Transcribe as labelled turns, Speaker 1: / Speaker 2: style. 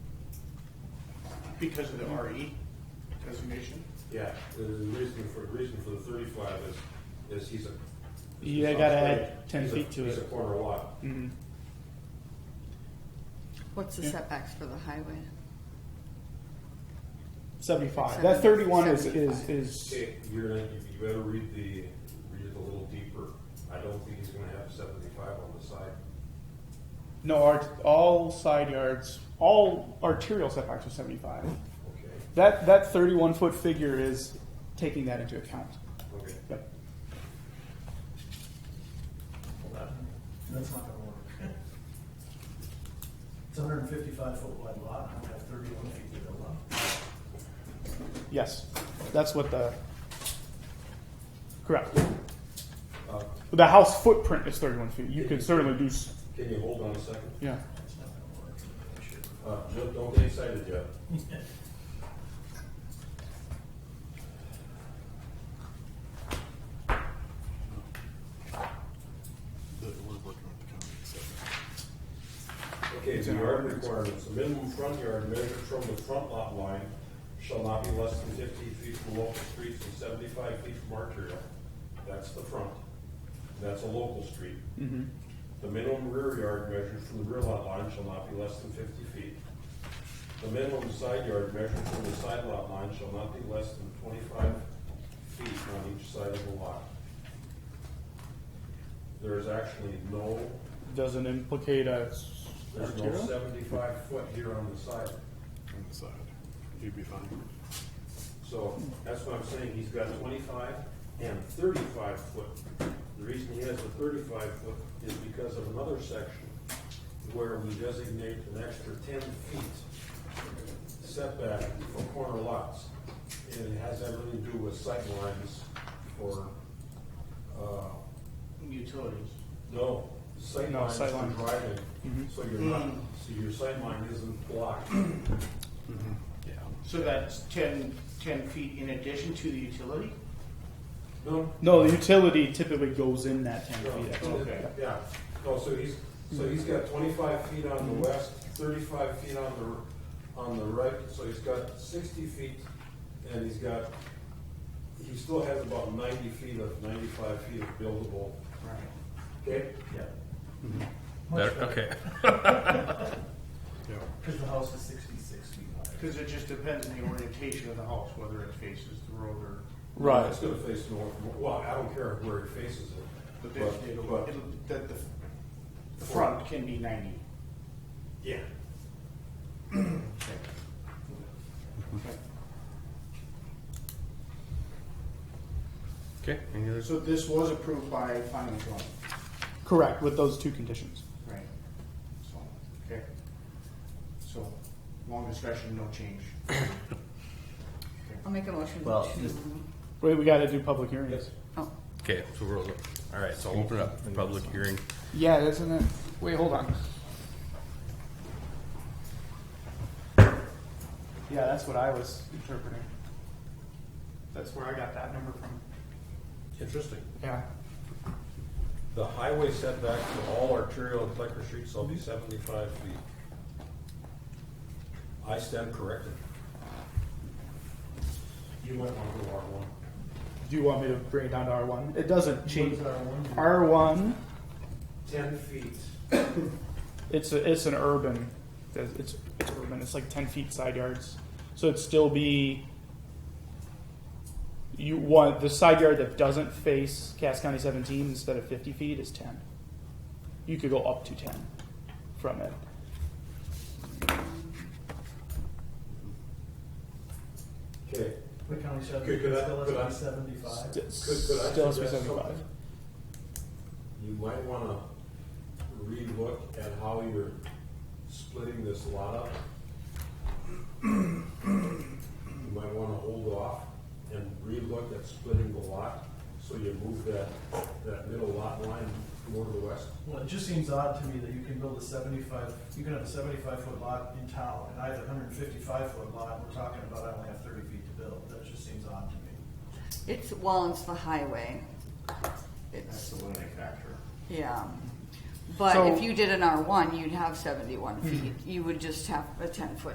Speaker 1: because of the RE designation?
Speaker 2: Yeah, the reason for, reason for the thirty-five is, is he's a.
Speaker 3: You
Speaker 2: he's
Speaker 3: gotta
Speaker 2: on
Speaker 3: add
Speaker 2: straight.
Speaker 3: 10
Speaker 2: He's a-
Speaker 3: feet to
Speaker 2: He's a
Speaker 3: it. Mm.
Speaker 2: corner lot.
Speaker 4: What's the
Speaker 3: Yeah.
Speaker 4: setbacks for the highway?
Speaker 3: Seventy-five. That thirty-one is, is, is,
Speaker 2: Okay, You're, gonna- you better read the, read it a little deeper. I don't think he's gonna have seventy-five on the side.
Speaker 3: no, art, all side yards, all arterial setbacks are seventy-five.
Speaker 2: Okay,
Speaker 3: That, that thirty-one foot figure is taking that into account.
Speaker 2: okay.
Speaker 3: Yep.
Speaker 5: That's not gonna work. It's a hundred and fifty-five foot wide lot, and I have thirty-one feet to go up.
Speaker 3: Yes, that's what the, correct.
Speaker 2: Uh,
Speaker 3: The house footprint is thirty-one feet. You could certainly do, s-
Speaker 2: Can you hold on a second?
Speaker 3: yeah.
Speaker 5: It's not gonna work. I should-
Speaker 2: Uh, don't, don't get excited yet. Okay, the yard requirements, the minimum front yard measured from the front lot line shall not be less than fifty feet from local streets and seventy-five feet from arterial. That's the front. That's a local street. The minimum rear yard measured from the rear lot line shall not be less than fifty feet. The minimum side yard measured from the side lot line shall not be less than twenty-five feet on each side of the lot. There is actually no
Speaker 3: Doesn't implicate a s-
Speaker 2: there's no
Speaker 3: arterial?
Speaker 2: seventy-five foot here on the side,
Speaker 1: On the side, you'd be fine.
Speaker 2: so that's what I'm saying, he's got twenty-five and thirty-five foot. The reason he has the thirty-five foot is because of another section where we designate an extra ten feet setback for corner lots. And it has everything to do with sight lines or, uh,
Speaker 1: Utilities.
Speaker 2: No, sight
Speaker 3: No,
Speaker 2: lines for
Speaker 3: sight Mm-hmm. line.
Speaker 2: driving, so you're not, so your sight line isn't blocked.
Speaker 1: Yeah. So that's ten, ten feet in addition to the utility?
Speaker 2: No,
Speaker 3: No, the utility typically goes in that ten
Speaker 2: no,
Speaker 3: feet. actually.
Speaker 2: okay, yeah, no, so he's, so he's got twenty-five feet on the west, thirty-five feet on the, on the right, so he's got sixty feet, and he's got, he still has about ninety feet of, ninety-five feet of buildable,
Speaker 1: Right.
Speaker 2: okay?
Speaker 5: Yeah.
Speaker 6: Better, okay.
Speaker 5: Cause the house is sixty-six feet high.
Speaker 1: Because it just depends on the orientation of the house, whether it faces the road or,
Speaker 3: Right.
Speaker 2: It's gonna face north, well, I don't care where he faces it,
Speaker 1: but
Speaker 2: but,
Speaker 1: they- it'll,
Speaker 2: but,
Speaker 1: it'll- that the, the front can be ninety.
Speaker 2: yeah.
Speaker 6: Okay. Any others?
Speaker 1: So this was approved by finance law,
Speaker 3: Correct, with those two conditions.
Speaker 1: right? So, okay. So, long discussion, no change.
Speaker 4: I'll make a motion
Speaker 6: Well,
Speaker 4: to,
Speaker 6: this-
Speaker 3: Wait, we gotta do public hearings.
Speaker 4: oh,
Speaker 6: Okay. So we're all all right. So I'll open it up for public hearing.
Speaker 3: Yeah, isn't it? Wait, hold on. Yeah, that's what I was interpreting. That's where I got that number from.
Speaker 2: Interesting.
Speaker 3: Yeah.
Speaker 2: The highway setback for all arterial and collector streets shall be seventy-five feet. I stand corrected. You might want to go R one.
Speaker 3: Do you want me to bring it down to R one? It doesn't change.
Speaker 5: What does our one do?
Speaker 3: R one,
Speaker 2: Ten feet.
Speaker 3: it's a, it's an urban, it's, it's urban, it's like ten feet side yards. So it'd still be, you want, the side yard that doesn't face Cass County seventeen instead of fifty feet is ten. You could go up to ten from it.
Speaker 2: Okay,
Speaker 5: The county said
Speaker 2: Could- could I-
Speaker 5: it's still
Speaker 2: could I-
Speaker 5: at seventy-five.
Speaker 3: St-
Speaker 2: could, could I
Speaker 3: Still has to be
Speaker 2: suggest
Speaker 3: seventy-five.
Speaker 2: something? You might want to relook at how you're splitting this lot up. You might want to hold off and relook at splitting the lot, so you move that, that middle lot line more to the west.
Speaker 5: Well, it just seems odd to me that you can build a seventy-five, you can have a seventy-five foot lot in town, and I have a hundred and fifty-five foot lot, and we're talking about I only have thirty feet to build, that just seems odd to me.
Speaker 4: it's, well, it's the highway.
Speaker 1: That's
Speaker 4: It's,
Speaker 1: the limiting factor.
Speaker 4: yeah. But
Speaker 3: So- Mm-hmm.
Speaker 4: if you did an R one, you'd have seventy-one feet. You would just have a ten-foot